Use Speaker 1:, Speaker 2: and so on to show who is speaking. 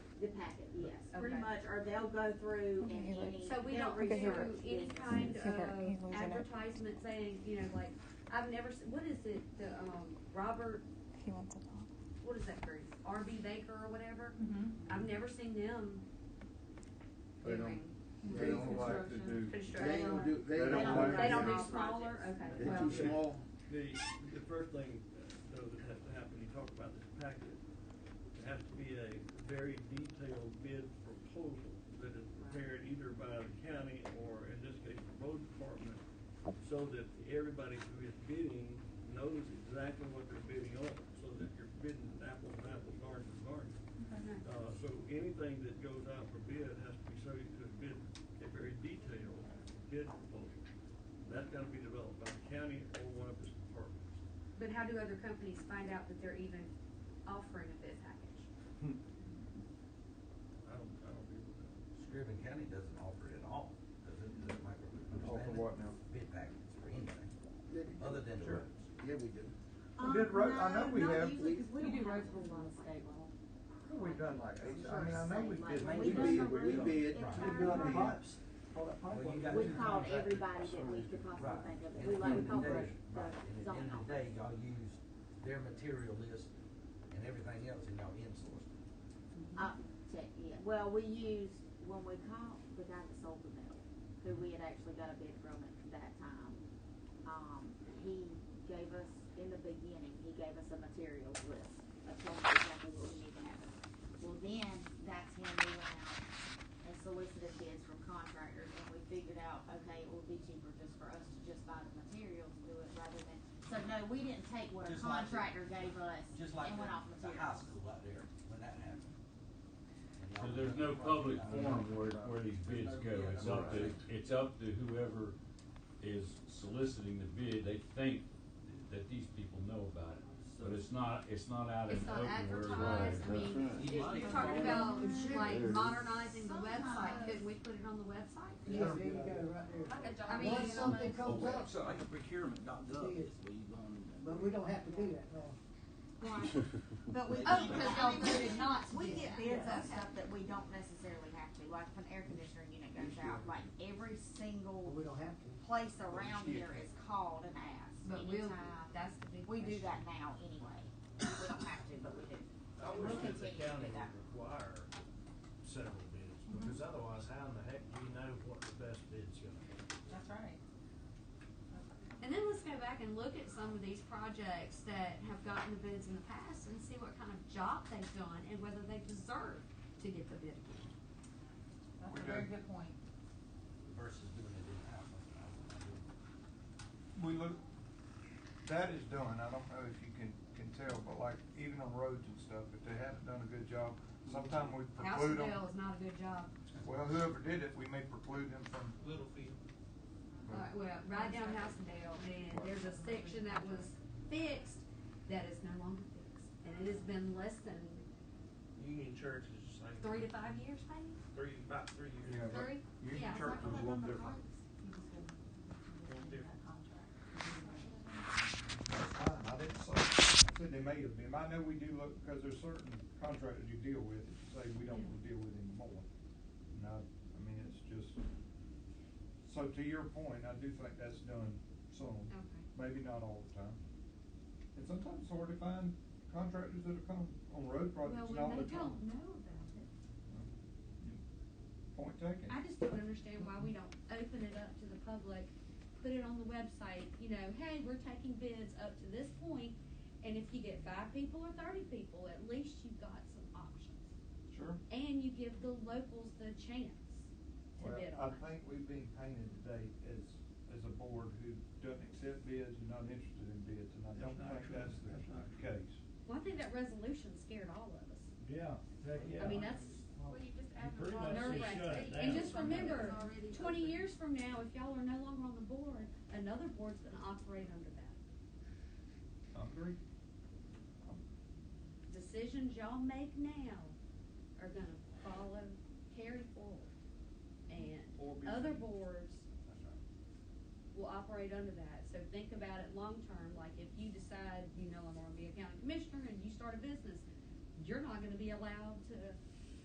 Speaker 1: The packet, yes, pretty
Speaker 2: Okay.
Speaker 1: much, or they'll go through and any.
Speaker 2: So we
Speaker 1: they'll
Speaker 2: don't do
Speaker 1: research
Speaker 2: any
Speaker 1: business.
Speaker 2: kind
Speaker 3: Is there any
Speaker 2: of
Speaker 3: loser left?
Speaker 2: advertisement saying, you know, like, I've never, se- what is it, the, um, Robert,
Speaker 3: He wants it all.
Speaker 2: what is that group? RB Baker or whatever?
Speaker 4: Mhm.
Speaker 2: I've never seen them
Speaker 5: They don't,
Speaker 2: doing
Speaker 5: they don't like to do,
Speaker 6: They
Speaker 2: construction.
Speaker 6: don't do, they
Speaker 5: They
Speaker 6: don't
Speaker 5: don't
Speaker 6: like.
Speaker 5: like
Speaker 2: They don't
Speaker 5: do
Speaker 2: do
Speaker 6: it.
Speaker 2: smaller, okay,
Speaker 6: They're
Speaker 2: well,
Speaker 6: too small.
Speaker 7: The, the first thing, uh, though, that has to happen, you talk about this packet, it has to be a very detailed bid proposal that is prepared either by the county or, in this case, the road department, so that everybody who is bidding knows exactly what they're bidding on, so that you're bidding apples and apples, garden to garden.
Speaker 2: Uh-huh.
Speaker 7: Uh, so anything that goes out for bid has to be subject to a bid, a very detailed bid proposal. That's gotta be developed by the county or one of its departments.
Speaker 2: but how do other companies find out that they're even offering a bid package?
Speaker 7: I don't, I don't agree with that.
Speaker 8: Scriven County doesn't offer it at all, does it? Is that my understanding?
Speaker 5: Offer what now?
Speaker 8: Bid packages for anything, other than the
Speaker 5: Sure.
Speaker 8: roads.
Speaker 6: Yeah, we do.
Speaker 5: We did ro- I know we have-
Speaker 1: We do roads on state level.
Speaker 5: we've done like eight, I mean, I know we
Speaker 1: Like,
Speaker 5: did.
Speaker 6: We
Speaker 1: we've
Speaker 6: bid,
Speaker 1: done the
Speaker 6: we
Speaker 1: roads
Speaker 6: bid.
Speaker 1: entire
Speaker 6: We bid.
Speaker 1: roads.
Speaker 8: Well, you got
Speaker 1: We
Speaker 8: two
Speaker 1: called
Speaker 8: contractors.
Speaker 1: everybody that we could possibly
Speaker 8: Right.
Speaker 1: think
Speaker 8: And
Speaker 1: of, we
Speaker 8: at
Speaker 1: like,
Speaker 8: the
Speaker 1: we
Speaker 8: end of
Speaker 1: called
Speaker 8: the
Speaker 1: the,
Speaker 8: day-
Speaker 1: the
Speaker 8: Right, and at the
Speaker 1: zone
Speaker 8: end of the
Speaker 1: office.
Speaker 8: day, y'all use their material list and everything else and y'all insource it.
Speaker 1: Uh, check, yeah, well, we used, when we called the guy that sold the mill, who we had actually got a bid from at that time, um, he gave us, in the beginning, he gave us a materials list of told us exactly what we need to have. Well, then, that's when we went out and solicited bids from contractors, and we figured out, okay, it would be cheaper just for us to just buy the materials, do it rather than, so no, we didn't take what a
Speaker 8: Just like the-
Speaker 1: contractor gave us
Speaker 8: Just like
Speaker 1: and went off
Speaker 8: the, the high
Speaker 1: materials.
Speaker 8: school out there, when that happened. And y'all-
Speaker 9: So there's no public forum where, where these bids go, it's up to, it's up to whoever is soliciting the bid, they think that these people know about it. But it's not, it's not out in
Speaker 2: It's
Speaker 9: the
Speaker 2: not
Speaker 9: open where.
Speaker 2: advertised, I mean,
Speaker 8: You
Speaker 2: you're
Speaker 8: might-
Speaker 2: you're talking about like
Speaker 5: There's-
Speaker 2: modernizing the website, couldn't we put it on the website?
Speaker 10: Yes, there you go, right there.
Speaker 2: I mean,
Speaker 10: Once something comes up,
Speaker 8: So like a procurement dot gov is where you go on.
Speaker 10: but we don't have to do that now.
Speaker 1: Right. But we,
Speaker 2: Oh, because y'all voted not to
Speaker 1: we
Speaker 2: do
Speaker 1: get bids
Speaker 2: that.
Speaker 1: on stuff that we don't necessarily have to, like if an air conditioner unit goes out, like every
Speaker 10: But
Speaker 1: single
Speaker 10: we don't have to.
Speaker 1: place around here is called and asked
Speaker 2: But we'll,
Speaker 1: anytime.
Speaker 2: that's the big
Speaker 1: We do
Speaker 2: question.
Speaker 1: that now anyway, we don't have to, but we
Speaker 11: I
Speaker 1: do. And
Speaker 11: wish
Speaker 1: we'll
Speaker 11: that the
Speaker 1: continue to
Speaker 11: county
Speaker 1: do that.
Speaker 11: would require several bids, because otherwise, how in the heck do you know what the best bid's gonna be?
Speaker 4: That's right.
Speaker 2: And then let's go back and look at some of these projects that have gotten the bids in the past and see what kind of job they've done and whether they deserve to get the bid again.
Speaker 4: That's a very good point.
Speaker 8: Versus doing it in-house. I don't know.
Speaker 5: We look, that is done, I don't know if you can, can tell, but like, even on roads and stuff, if they haven't done a good job, sometime we
Speaker 2: House and
Speaker 5: preclude them.
Speaker 2: Dale is not a good job.
Speaker 5: Well, whoever did it, we may preclude them from,
Speaker 11: Littlefield.
Speaker 2: All right, Uh, well, right down House and Dale, and there's a section that was fixed that is no longer fixed. And it has been less than
Speaker 11: Union Church is the same.
Speaker 2: three to five years, maybe?
Speaker 11: Three, about three years.
Speaker 5: Yeah.
Speaker 2: Three?
Speaker 5: Union
Speaker 2: Yeah.
Speaker 5: Church was a little different. That's fine, I didn't say, I said they may have been, I know we do look, because there's certain contractors you deal with, that you say we don't want to deal with anymore. And I, I mean, it's just, so to your point, I do think that's done some,
Speaker 2: Okay.
Speaker 5: maybe not all the time. And sometimes it's hard to find contractors that'll come on road projects and
Speaker 2: Well,
Speaker 5: all
Speaker 2: when
Speaker 5: the
Speaker 2: they don't
Speaker 5: time.
Speaker 2: know about it.
Speaker 5: Point taken.
Speaker 4: I just don't understand why we don't open it up to the public, put it on the website, you know, hey, we're taking bids up to this point, and if you get five people or thirty people, at least you've got some options.
Speaker 5: Sure.
Speaker 4: And you give the locals the chance to
Speaker 5: Well,
Speaker 4: bid
Speaker 5: I
Speaker 4: on it.
Speaker 5: think we've been painted today as, as a board who doesn't accept bids and not interested in bids, and I
Speaker 7: That's
Speaker 5: don't
Speaker 7: not
Speaker 5: think
Speaker 7: true.
Speaker 5: that's the
Speaker 7: That's not true.
Speaker 5: case.
Speaker 4: Well, I think that resolution scared all of us.
Speaker 11: Yeah,
Speaker 4: I mean, that's
Speaker 11: Well,
Speaker 2: you just
Speaker 11: add the pretty wrong much
Speaker 4: nerve
Speaker 11: just shut
Speaker 4: wracking.
Speaker 11: it
Speaker 4: And
Speaker 11: down.
Speaker 4: just remember,
Speaker 2: Already
Speaker 4: twenty
Speaker 2: open.
Speaker 4: years from now, if y'all are no longer on the board, another board's gonna operate under that.
Speaker 5: I agree.
Speaker 4: Decisions y'all make now are gonna follow, carry forward.
Speaker 5: Or be
Speaker 4: And other
Speaker 5: changed.
Speaker 4: boards
Speaker 8: That's right.
Speaker 4: will operate under that, so think about it long-term, like if you decide, you know, I'm gonna be a county commissioner and you start a business, you're not gonna be allowed to